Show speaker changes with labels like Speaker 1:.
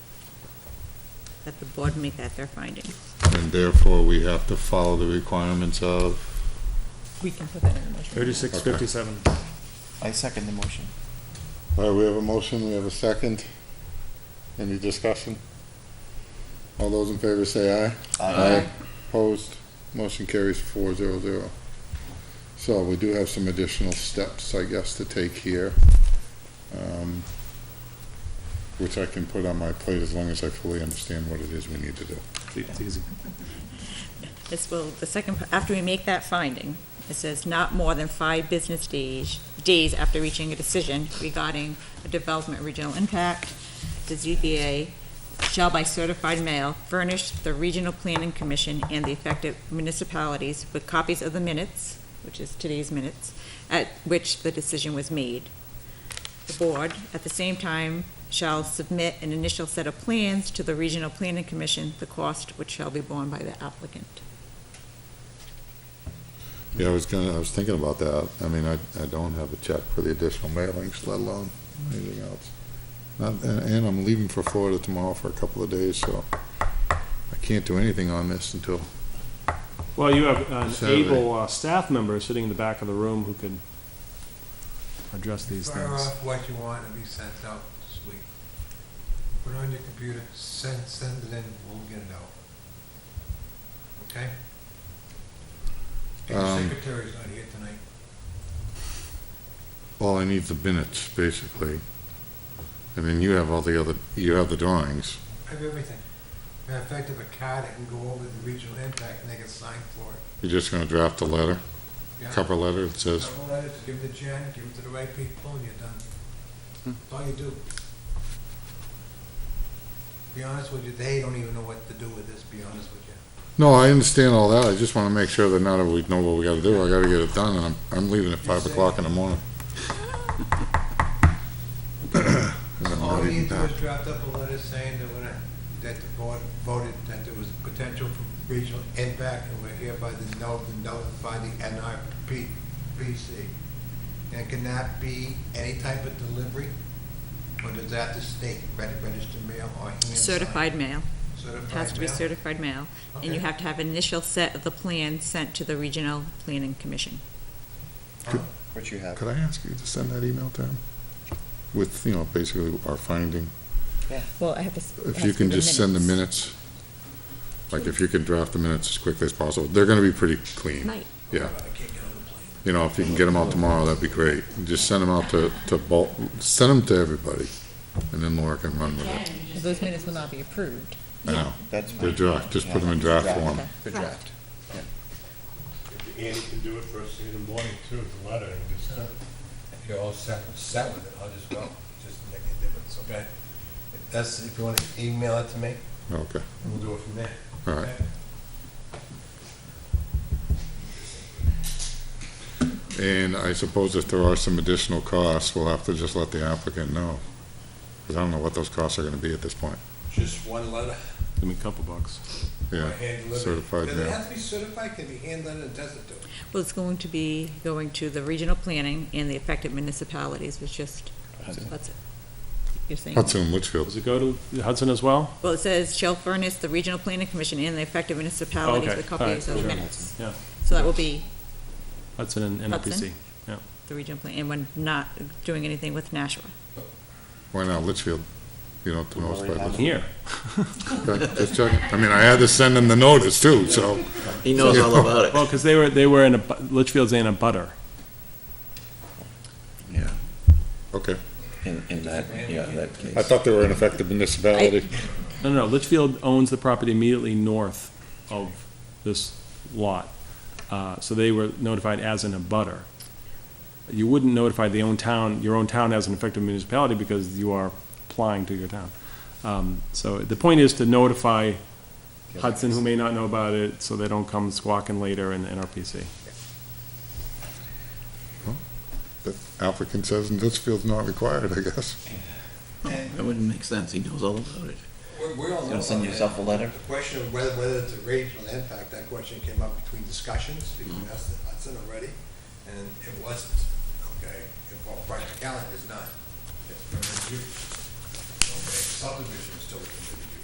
Speaker 1: that the board make that their finding.
Speaker 2: and therefore we have to follow the requirements of,
Speaker 3: We can put that in the motion.
Speaker 4: Thirty-six fifty-seven.
Speaker 5: I second the motion.
Speaker 2: all right, we have a motion, we have a second. Any discussion? All those in favor say aye. Opposed, motion carries four zero zero. So we do have some additional steps, I guess, to take here, um, which I can put on my plate as long as I fully understand what it is we need to do.
Speaker 4: It's easy.
Speaker 1: This will, the second, pa- after we make that finding, it says not more than five business days, days after reaching a decision regarding a development regional impact, the ZBA shall by certified mail furnish the Regional Planning Commission and the affected municipalities with copies of the minutes, which is today's minutes, at which the decision was made. The board, at the same time, shall submit an initial set of plans to the Regional Planning Commission, the cost which shall be borne by the applicant.
Speaker 2: Yeah, I was gonna, I was thinking about that. I mean, I, I don't have a check for the additional mailings, let alone anything else. Not- And, and I'm leaving for Florida tomorrow for a couple of days, so I can't do anything on this until,
Speaker 4: Well, you have an
Speaker 2: Survey.
Speaker 4: able uh, staff member sitting in the back of the room who can address these
Speaker 6: Fire
Speaker 4: things.
Speaker 6: off what you want and be sent out this week. Put it on your computer, send, send it in, we'll get it out. Okay? And the
Speaker 2: Um,
Speaker 6: secretary's not here tonight.
Speaker 2: all I need is the minutes, basically. And then you have all the other, you have the drawings.
Speaker 6: I have everything. Matter of fact, I have a card that can go over the regional impact and they can sign for it.
Speaker 2: You're just gonna draft a letter,
Speaker 6: Yeah.
Speaker 2: cover letter that says,
Speaker 6: Couple letters, give it to Jen, give it to the right people, and you're done.
Speaker 4: Hmm.
Speaker 6: That's all you do. Be honest with you, they don't even know what to do with this, be honest with you.
Speaker 2: no, I understand all that. I just wanna make sure that now that we know what we gotta do, I gotta get it done, and I'm, I'm leaving at five o'clock in the morning. And I'm
Speaker 6: All
Speaker 2: not
Speaker 6: we
Speaker 2: even
Speaker 6: need to do
Speaker 2: done.
Speaker 6: is draft up a letter saying that we're, not- that the board voted that there was potential for regional impact, and we're hereby the no, the notify the NRP, PC. And can that be any type of delivery, or does that the state, reg- registered mail or hand signed?
Speaker 1: Certified mail, It
Speaker 6: Certified
Speaker 1: has to be
Speaker 6: mail?
Speaker 1: certified mail, and
Speaker 6: Okay.
Speaker 1: you have to have an initial set of the plans sent to the Regional Planning Commission.
Speaker 6: Oh,
Speaker 5: What you have.
Speaker 2: Could I ask you to send that email to him? With, you know, basically our finding,
Speaker 3: Well, I have to. s- it
Speaker 2: if
Speaker 3: has
Speaker 2: you
Speaker 3: to be
Speaker 2: can just send the minutes, like if you can draft the minutes as quickly as possible, they're gonna be pretty clean.
Speaker 1: Right.
Speaker 2: Yeah,
Speaker 6: I can't get on the plane.
Speaker 2: you know, if you can get them out tomorrow, that'd be great. Just send them out to, to bulk, send them to everybody, and then Laura can run with it.
Speaker 3: Those minutes will not be approved.
Speaker 2: I know,
Speaker 5: That's
Speaker 2: they're draft, just put them in draft form.
Speaker 5: the draft.
Speaker 7: Andy can do it first thing in the morning too, with the letter, and just,
Speaker 6: If you're all set, set with it, I'll just go, just make a difference, okay? If that's, if you wanna email it to me,
Speaker 2: Okay,
Speaker 6: we'll do it from there.
Speaker 2: all right. And I suppose if there are some additional costs, we'll have to just let the applicant know. Because I don't know what those costs are gonna be at this point.
Speaker 6: Just one letter,
Speaker 4: Give me a couple bucks.
Speaker 2: Yeah,
Speaker 6: hand delivered.
Speaker 2: certified
Speaker 6: Does it
Speaker 2: mail.
Speaker 6: have to be certified, can it be hand delivered, does it do?
Speaker 1: Well, it's going to be going to the Regional Planning and the affected municipalities, which just, what's it? You're saying?
Speaker 2: Hudson, Litchfield.
Speaker 4: Does it go to Hudson as well?
Speaker 1: Well, it says shall furnish the Regional Planning Commission and the affected municipalities
Speaker 4: Okay,
Speaker 1: with
Speaker 4: all
Speaker 1: copies
Speaker 4: right,
Speaker 1: of the
Speaker 4: sure.
Speaker 1: minutes.
Speaker 4: Yeah.
Speaker 1: So that will be
Speaker 4: Hudson and NRPC.
Speaker 1: Hudson? the Regional Plan, and we're not doing anything with Nashua.
Speaker 2: Why not Litchfield? You don't know it's by Litchfield.
Speaker 4: Here.
Speaker 2: Okay, Just checking. I mean, I had to send them the notice too, so.
Speaker 8: He knows all about it.
Speaker 4: Well, because they were, they were in a, bu- Litchfield's in a butter.
Speaker 8: Yeah,
Speaker 2: Okay.
Speaker 8: in, in that, yeah, that case.
Speaker 2: I thought they were an effective municipality.
Speaker 4: No, no, no, Litchfield owns the property immediately north of this lot. Uh, So they were notified as an abutter. You wouldn't notify the own town, your own town as an effective municipality because you are applying to your town. Um, So the point is to notify Hudson, who may not know about it, so they don't come squawking later in NRPC.
Speaker 2: The applicant says Litchfield's not required, I guess.
Speaker 8: That wouldn't make sense, he knows all about it.
Speaker 6: We're, we're all.
Speaker 8: Gonna send
Speaker 6: about
Speaker 8: yourself a
Speaker 6: that.
Speaker 8: letter?
Speaker 6: The question of whether, whether it's a regional impact, that question came up between discussions, between
Speaker 8: Mm-hmm.
Speaker 6: us and Hudson already, and it wasn't, okay? If all practicality is not, it's permitted use. Okay, subdivision is still a